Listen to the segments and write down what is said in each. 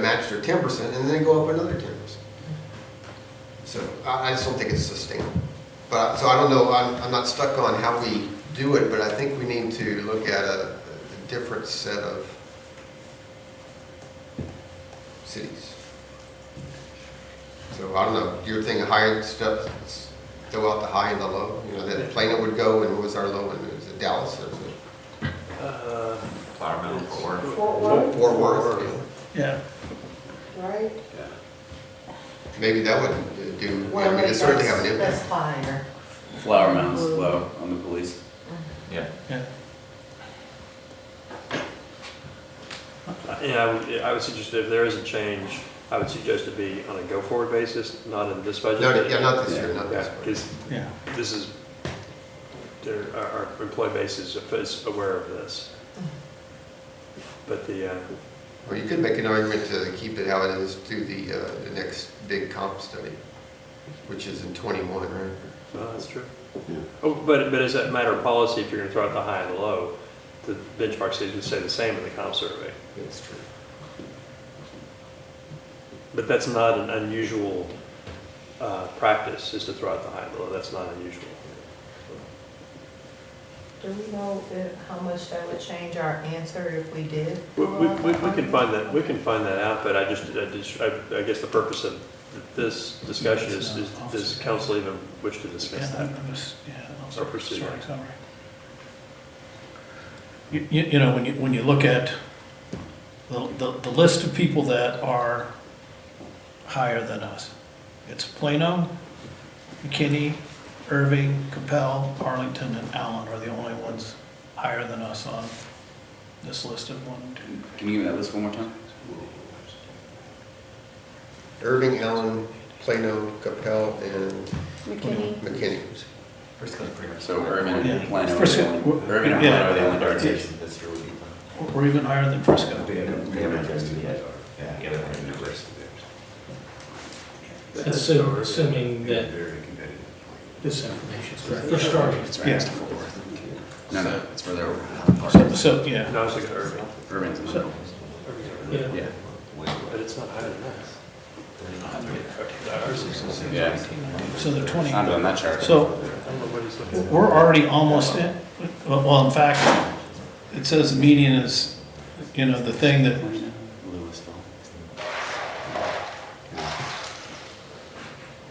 matched or ten percent, and then they go up another ten percent. So I, I just don't think it's sustainable. But, so I don't know, I'm, I'm not stuck on how we do it, but I think we need to look at a, a different set of cities. So I don't know, your thing, high end stuff, s- throw out the high and the low, you know, that Plano would go, and what was our low, and it was Dallas, or was Uh, Flower Mound for work. Fort it Worth, Fort Worth? you know? Yeah, right? Yeah. Maybe that would do, you Well, know, we could certainly have an that's- impact. That's higher. Flower mounds low on the police. Yeah. yeah. Yeah, I would, I would suggest if there is a change, I would suggest it be on a go-forward basis, not in this budget. No, yeah, not this year, not this one. because Yeah, this is, their, our, our employee base is, is aware of this. But the, uh, Or you could make an argument to keep it how it is to the, uh, the next big comp study, which is in twenty-one, right? no, that's true. Yeah. Oh, but, but as a matter of policy, if you're gonna throw out the high and the low, the benchmark cities would stay the same in the comp survey. That's true. But that's not an unusual, uh, practice, is to throw out the high and the low, that's not unusual. Do we know if- how much that would change our answer if we did? We, we, we we can find that, we can find that out, but I just, I just, I, I guess the purpose of this discussion is, is, does council even wish to discuss yeah, that? I'm- I'm just- yeah, I'm Or sorry, pursue sorry, it. sorry. You, you you know, when you, when you look at the, the, the list of people that are higher than us, it's Plano, McKinney, Irving, Capel, Arlington, and Allen are the only ones higher than us on this list of one, two, Can you give me that list one more time? Irving, Allen, Plano, Capel, and McKinney. McKinney. Frisco's pretty much. So Irvin Yeah. and Plano are Frisco- the only, w- Irvin and yeah. Plano are the only dark stations. Orientation this year would be fun. or- or even higher than Frisco. We haven't, we haven't adjusted yet. Yeah, we haven't had numbers. Assuming- assuming that- Very competitive. This information is correct. For starters. It's Yeah. right next to Fort Worth. No, no, it's further over. So, so, yeah, No, it's like Irving, Irvin's in the middle. Yeah. Yeah, but it's not higher than us. yeah. so they're twenty. I'm on that chart. So I don't know what he's looking at. We're already almost in, well, well, in fact, it says the median is, you know, the thing that, Louisville.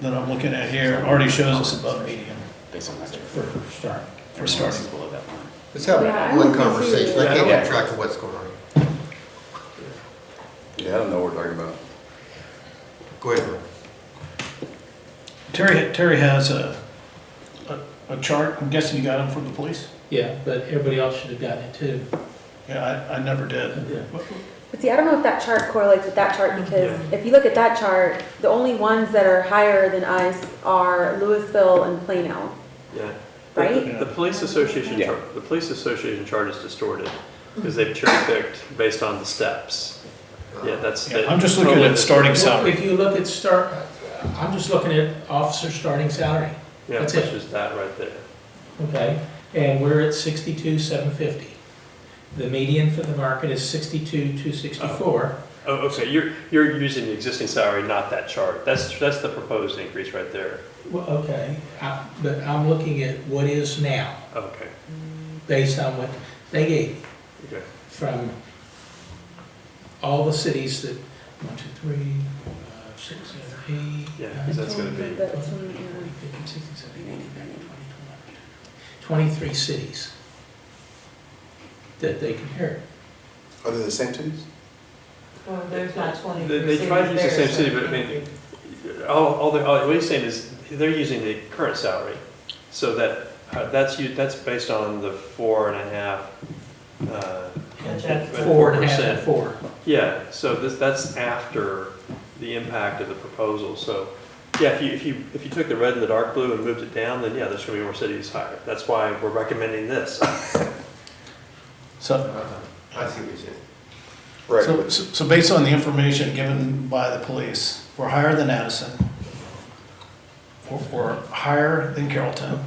that I'm looking at here already shows us above median Based on last year. For start. for starting. Below that line. Let's have Yeah, I one would consider conversation, I that. can't Yeah. keep track of what's going on. Yeah, I don't know what we're talking about. Go ahead, Ron. Terry, Terry has a, a- a chart, I'm guessing you got them from the police? Yeah, but everybody else should have gotten it too. Yeah, I, I never did. Yeah. But see, I don't know if that chart correlates with that chart because if you look at that chart, the only ones that are higher than us are Louisville and Plano. Yeah. Right? The police association Yeah. chart, the police association chart is distorted, because they've cherry picked based on the steps. Yeah, that's. Yeah, I'm just looking at starting salary. If you look at start, I'm just looking at officer starting salary, Yeah, that's which it. is that right there. okay? And we're at sixty-two, seven fifty. The median for the market is sixty-two, two sixty-four. Oh, okay, you're, you're using the existing salary, not that chart. That's, that's the proposed increase right there. Well, okay, I- but I'm looking at what is now, Okay, based on what they gave me. okay. from all the cities that, one, two, three, four, five, six, seven, eight. Yeah, 'cause nine, that's gonna be- 10, 11, 12, 13, 14, 15, 16, 17, 18, 19, 20, 21, 22. 23 cities that they compared. Are they the same cities? Well, there's not twenty They- percent. they try to use the same city, but I mean- All, all the, all, what he's saying is, they're using the current salary, so that, uh, that's, you- that's based on the four and a half, uh, Project. Four and a half and 4%. four. yeah, so this, that's after the impact of the proposal, so, yeah, if you, if you, if you took the red and the dark blue and moved it down, then yeah, there's gonna be more cities higher, that's why we're recommending this. So, I see what you're saying. so, so based on the information given by the police, we're higher than Addison. We're, we're higher than Carrollton.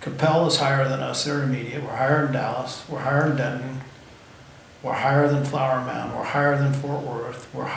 Capel is higher than us, they're immediate, we're higher than Dallas, we're higher than Denton, we're higher than Flower Mound, we're higher than Fort Worth, we're